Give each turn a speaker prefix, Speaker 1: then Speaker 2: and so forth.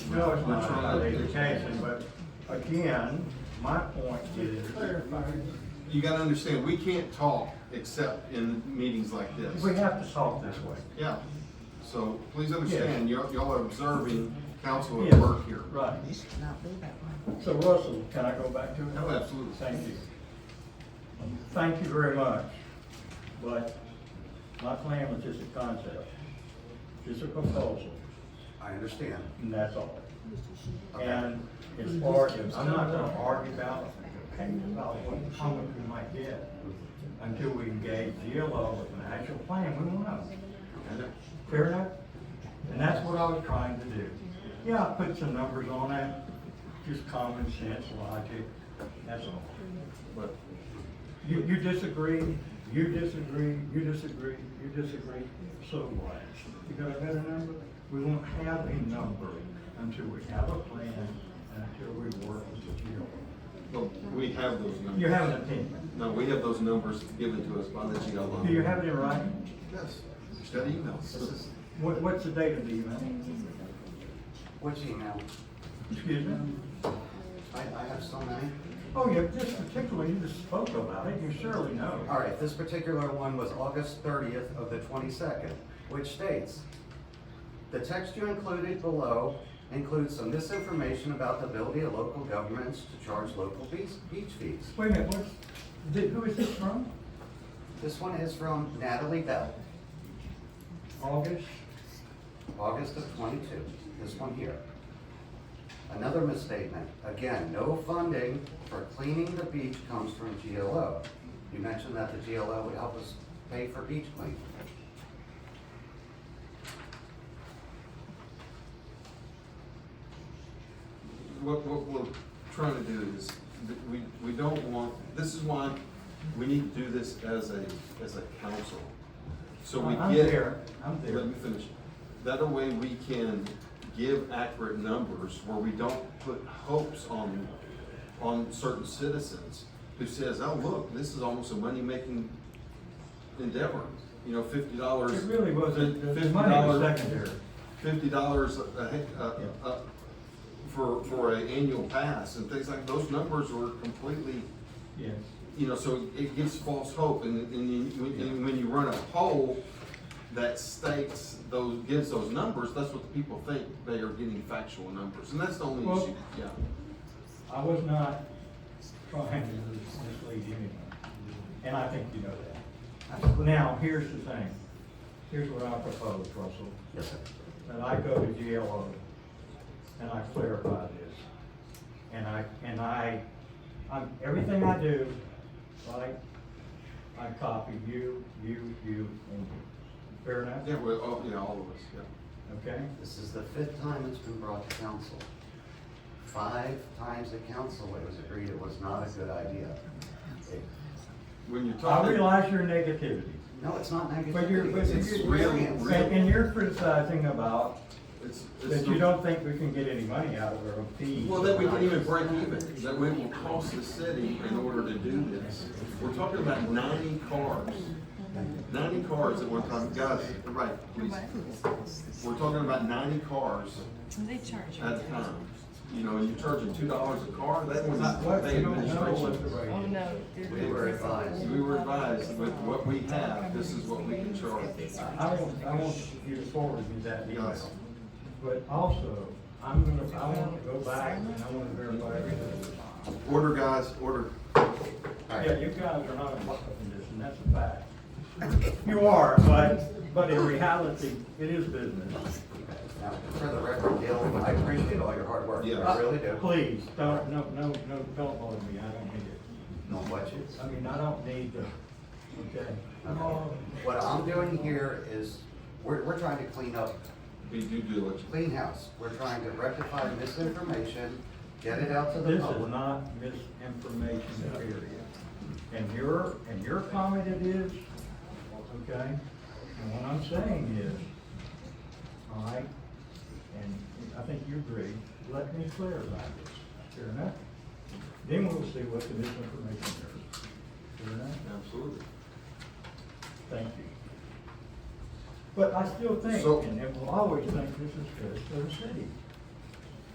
Speaker 1: No, it's not related to Cassie, but again, my point is,
Speaker 2: You gotta understand, we can't talk except in meetings like this.
Speaker 1: we have to solve this way.
Speaker 2: Yeah, so please understand, y'all, y'all are observing council at
Speaker 1: Yes,
Speaker 2: work here.
Speaker 1: Right.
Speaker 3: This should not be that way.
Speaker 1: So Russell, can I go back to it?
Speaker 2: Oh, absolutely.
Speaker 1: Thank you. Thank you very much. But my plan was just a concept, just a proposal,
Speaker 4: I understand.
Speaker 1: and that's all.
Speaker 4: Okay.
Speaker 1: And as far as, I'm not gonna argue about, about what comment we might get until we engage GLO with an actual plan, we won't know. Fair enough? And that's what I was trying to do. Yeah, I put some numbers on that, just common sense, logic, that's all. But you, you disagree, you disagree, you disagree, you disagree, so what? You got a better number? We won't have a number until we have a plan, and until we work with the GLO.
Speaker 2: Well, we have those numbers.
Speaker 1: You have an opinion.
Speaker 2: No, we have those numbers given to us by the GLO.
Speaker 1: Do you have it in writing?
Speaker 2: Yes, just that email. It's
Speaker 1: What, what's the date of the email?
Speaker 4: What's email?
Speaker 1: Excuse me?
Speaker 4: I, I have so many.
Speaker 1: Oh, yeah, just particularly, you just spoke about it, you surely know.
Speaker 4: All right, this particular one was August thirtieth of the twenty-second, which states, "The text you included below includes some misinformation about the ability of local governments to charge local beach, beach fees."
Speaker 1: Wait a minute, what's, did, who is this from?
Speaker 4: This one is from Natalie Bell,
Speaker 1: August?
Speaker 4: August of twenty-two, this one here. Another misstatement, again, no funding for cleaning the beach comes from GLO. You mentioned that the GLO would help us pay for beach cleaning.
Speaker 2: What, what we're trying to do is, that we, we don't want, this is why we need to do this as a, as a council. So we
Speaker 1: I'm
Speaker 2: get.
Speaker 1: there, I'm there.
Speaker 2: Let me finish. That a way we can give accurate numbers where we don't put hopes on, on certain citizens who says, oh, look, this is almost a money-making endeavor. You know, fifty dollars.
Speaker 1: It really wasn't, the money was secondary.
Speaker 2: fifty dollars a, a, a- a- for, for an annual pass and things like, those numbers were completely,
Speaker 1: Yes.
Speaker 2: you know, so it gives false hope and, and you, when- and when you run a poll that states those, gives those numbers, that's what the people think, they are getting factual numbers, and that's the only
Speaker 1: Well-
Speaker 2: issue, yeah.
Speaker 1: I was not trying to mislead anyone, and I think you know that. Now, here's the thing, here's what I propose, Russell.
Speaker 4: Yes, sir.
Speaker 1: that I go to GLO and I clarify this. And I, and I, I'm, everything I do, right, I copy you, you, you, and you. Fair enough?
Speaker 2: Yeah, well, oh, yeah, all of us, yeah.
Speaker 1: Okay?
Speaker 4: This is the fifth time it's been brought to council. Five times at council, it was agreed it was not a good idea. It-
Speaker 2: When you're
Speaker 1: I
Speaker 2: talking,
Speaker 1: realize your negativity,
Speaker 4: No, it's not
Speaker 1: but you're,
Speaker 4: negativity,
Speaker 1: but
Speaker 4: it's
Speaker 2: It's
Speaker 1: you're,
Speaker 2: real,
Speaker 4: experience.
Speaker 2: real.
Speaker 1: and and you're criticizing about
Speaker 2: it's, it's.
Speaker 1: that you don't think we can get any money out of our fees.
Speaker 2: Well, that we can even break even, that we will cost the city in order to do this. We're talking about ninety cars, ninety cars at one time, guys, right, please. We're talking about ninety cars
Speaker 5: They charge you.
Speaker 2: at a time. You know, you're charging two dollars a car, that was not
Speaker 1: What,
Speaker 2: what
Speaker 1: you
Speaker 2: they
Speaker 1: don't know what the
Speaker 2: administration.
Speaker 1: rate
Speaker 5: Oh,
Speaker 1: is.
Speaker 5: no. they're-
Speaker 4: We were advised.
Speaker 2: We were advised with what we have, this is what we can charge.
Speaker 1: I want, I want you to forward me that
Speaker 2: Yes.
Speaker 1: email. But also, I'm gonna, I want to go back and I want to verify everything.
Speaker 2: Order, guys, order.
Speaker 4: All
Speaker 1: Yeah,
Speaker 4: right,
Speaker 1: you guys are not in luck condition, that's a fact. You are, but, but in reality, it is business.
Speaker 4: now, for the record, Dale, I appreciate all your hard work,
Speaker 2: Yeah.
Speaker 4: I really do.
Speaker 1: Please, don't, no, no, no, don't bother me, I don't need it.
Speaker 4: Don't watch it.
Speaker 1: I mean, I don't need the, okay?
Speaker 4: Um, What I'm doing here is, we're, we're trying to clean up,
Speaker 2: Be due diligence.
Speaker 4: clean house. We're trying to rectify misinformation, get it out to the
Speaker 1: This is
Speaker 4: public.
Speaker 1: not misinformation period. And your, and your comment it is, okay? And what I'm saying is, all right, and I think you agree, let me clarify this, fair enough? Then we'll see what the misinformation is. Fair enough?
Speaker 2: Absolutely.
Speaker 1: Thank you. But I still think,
Speaker 2: So-
Speaker 1: and it will always think this is good for the city.